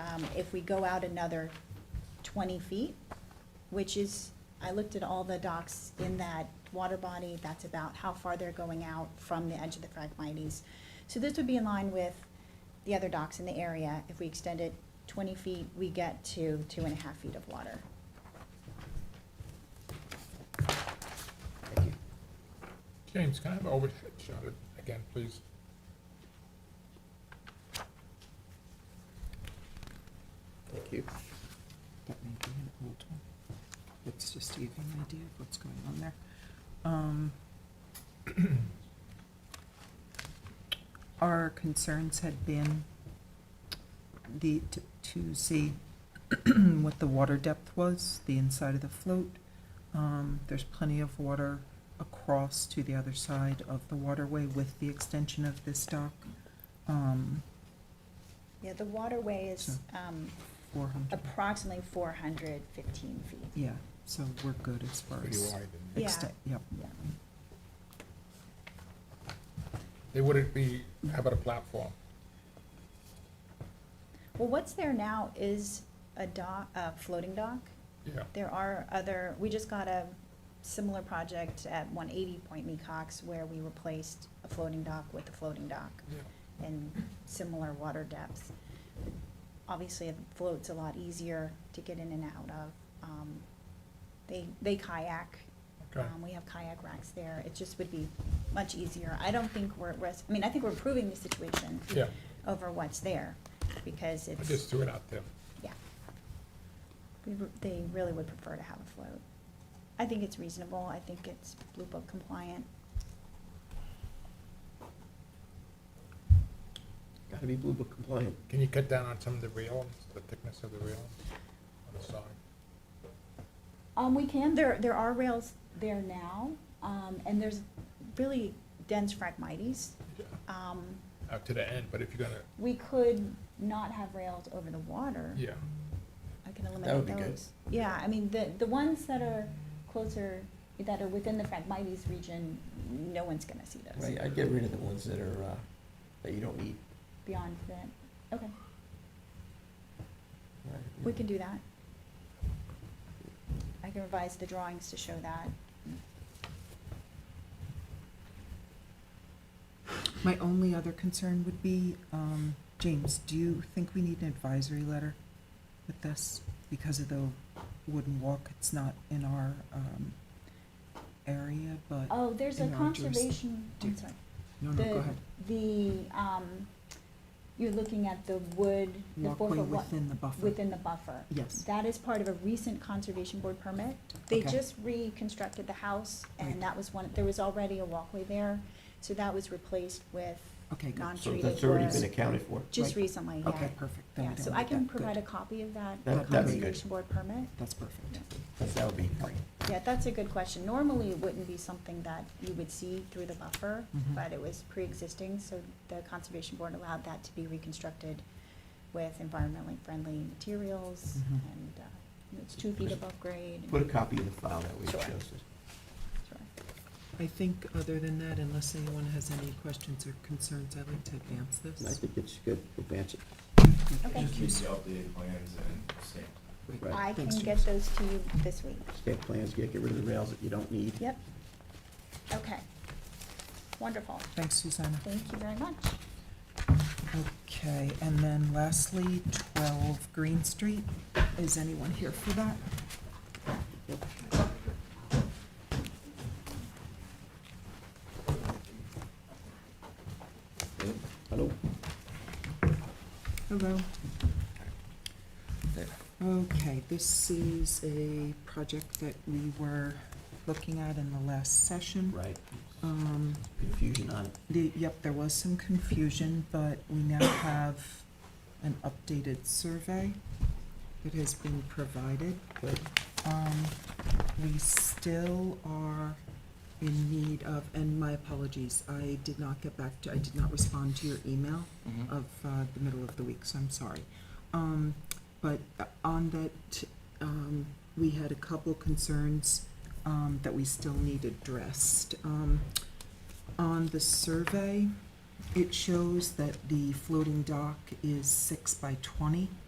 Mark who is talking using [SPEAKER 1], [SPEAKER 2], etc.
[SPEAKER 1] um, if we go out another twenty feet, which is, I looked at all the docks in that water body, that's about how far they're going out from the edge of the Phragmites. So this would be in line with the other docks in the area. If we extend it twenty feet, we get to two and a half feet of water.
[SPEAKER 2] Thank you.
[SPEAKER 3] James, can I have an overhead shot at- again, please?
[SPEAKER 2] Thank you. That may be an old one. It's just to give you an idea of what's going on there. Um, Our concerns had been the, to- to see what the water depth was, the inside of the float. Um, There's plenty of water across to the other side of the waterway with the extension of this dock. Um,
[SPEAKER 1] Yeah, the waterway is, um,
[SPEAKER 2] four hundred,
[SPEAKER 1] approximately four hundred fifteen feet.
[SPEAKER 2] yeah, so we're good as far
[SPEAKER 3] Pretty
[SPEAKER 2] as.
[SPEAKER 3] wide. and-
[SPEAKER 1] Yeah.
[SPEAKER 2] Extent, yep.
[SPEAKER 1] Yeah.
[SPEAKER 3] They wouldn't be, how about a platform?
[SPEAKER 1] Well, what's there now is a dock, a floating dock.
[SPEAKER 3] Yeah,
[SPEAKER 1] There are other, we just got a similar project at one eighty Point Mecox where we replaced a floating dock with a floating dock
[SPEAKER 3] yeah.
[SPEAKER 1] and similar water depths. Obviously, a float's a lot easier to get in and out of. Um, They, they kayak.
[SPEAKER 3] Okay.
[SPEAKER 1] Um, We have kayak racks there. It just would be much easier. I don't think we're at risk, I mean, I think we're improving the situation
[SPEAKER 3] Yeah,
[SPEAKER 1] over what's there because
[SPEAKER 3] I
[SPEAKER 1] it's.
[SPEAKER 3] just threw it out there.
[SPEAKER 1] Yeah. We re- They really would prefer to have a float. I think it's reasonable, I think it's Blue Book compliant.
[SPEAKER 4] Gotta be Blue Book compliant.
[SPEAKER 3] Can you cut down on some of the railings, the thickness of the railings on the side?
[SPEAKER 1] Um, we can, there, there are rails there now, um, and there's really dense phragmites.
[SPEAKER 3] Yeah,
[SPEAKER 1] Um,
[SPEAKER 3] Out to the end, but if you're gonna,
[SPEAKER 1] we could not have rails over the water.
[SPEAKER 3] yeah,
[SPEAKER 1] I can
[SPEAKER 4] That
[SPEAKER 1] eliminate
[SPEAKER 4] would be good.
[SPEAKER 1] those. Yeah, I mean, the, the ones that are closer, that are within the phragmites region, no one's gonna see those.
[SPEAKER 4] Right, I'd get rid of the ones that are, uh, that you don't need.
[SPEAKER 1] Beyond that, okay,
[SPEAKER 4] Right,
[SPEAKER 1] we can do that. I can revise the drawings to show that.
[SPEAKER 2] My only other concern would be, um, James, do you think we need an advisory letter with this? Because of the wooden walk, it's not in our, um, area, but,
[SPEAKER 1] Oh, there's a
[SPEAKER 2] In our jurisdic-
[SPEAKER 1] conservation, I'm
[SPEAKER 2] do-
[SPEAKER 1] sorry.
[SPEAKER 2] no, no, go
[SPEAKER 1] The,
[SPEAKER 2] ahead.
[SPEAKER 1] the, um, you're looking at the wood, the four
[SPEAKER 2] Walkway
[SPEAKER 1] foot wa-
[SPEAKER 2] within the buffer.
[SPEAKER 1] within the buffer.
[SPEAKER 2] Yes,
[SPEAKER 1] That is part of a recent conservation board permit. They
[SPEAKER 2] Okay.
[SPEAKER 1] just reconstructed the house
[SPEAKER 2] Right.
[SPEAKER 1] and that was one, there was already a walkway there. So that was replaced with
[SPEAKER 2] okay, good.
[SPEAKER 4] So
[SPEAKER 1] non-treated
[SPEAKER 4] that's already been
[SPEAKER 1] wood,
[SPEAKER 4] accounted for.
[SPEAKER 1] just
[SPEAKER 2] Right.
[SPEAKER 1] recently, yeah.
[SPEAKER 2] Okay, perfect. Then we
[SPEAKER 1] Yeah, so
[SPEAKER 2] don't
[SPEAKER 1] I
[SPEAKER 2] need
[SPEAKER 1] can
[SPEAKER 2] that. Good.
[SPEAKER 1] provide a copy of that
[SPEAKER 2] that'd
[SPEAKER 4] That-
[SPEAKER 2] be good.
[SPEAKER 1] conservation board permit.
[SPEAKER 2] That's perfect.
[SPEAKER 4] That's- That would be great.
[SPEAKER 1] Yeah, that's a good question. Normally, it wouldn't be something that you would see through the buffer,
[SPEAKER 2] Mhm.
[SPEAKER 1] but it was pre-existing, so the Conservation Board allowed that to be reconstructed with environmentally friendly materials,
[SPEAKER 2] Mhm.
[SPEAKER 1] and uh, it's two feet above grade. and-
[SPEAKER 4] Put a copy in the file, that way it
[SPEAKER 1] Sure.
[SPEAKER 4] shows it.
[SPEAKER 1] Sure.
[SPEAKER 5] I think other than that, unless anyone has any questions or concerns, I'd like to advance
[SPEAKER 4] And I
[SPEAKER 5] this.
[SPEAKER 4] think it's good, advance it.
[SPEAKER 1] Okay,
[SPEAKER 6] Just need the updated plans and stamp.
[SPEAKER 4] Right.
[SPEAKER 1] I can
[SPEAKER 2] Thanks,
[SPEAKER 1] get
[SPEAKER 2] James.
[SPEAKER 1] those to you this week.
[SPEAKER 4] Stamp plans, get, get rid of the rails that you don't need.
[SPEAKER 1] Yep. Okay. Wonderful.
[SPEAKER 2] Thanks, Susanna.
[SPEAKER 1] Thank you very much.
[SPEAKER 2] Okay, and then lastly, twelve Green Street. Is anyone here for that?
[SPEAKER 4] Hello?
[SPEAKER 2] Hello. Okay, this is a project that we were looking at in the last session.
[SPEAKER 4] Right,
[SPEAKER 2] Um,
[SPEAKER 4] confusion on it.
[SPEAKER 2] the, yep, there was some confusion, but we now have an updated survey that has been provided.
[SPEAKER 4] Good.
[SPEAKER 2] Um, we still are in need of, and my apologies, I did not get back to, I did not respond to your email of uh, the middle of the week, so I'm sorry. Um, But uh, on that, um, we had a couple concerns um, that we still need addressed. Um, On the survey, it shows that the floating dock is six by twenty.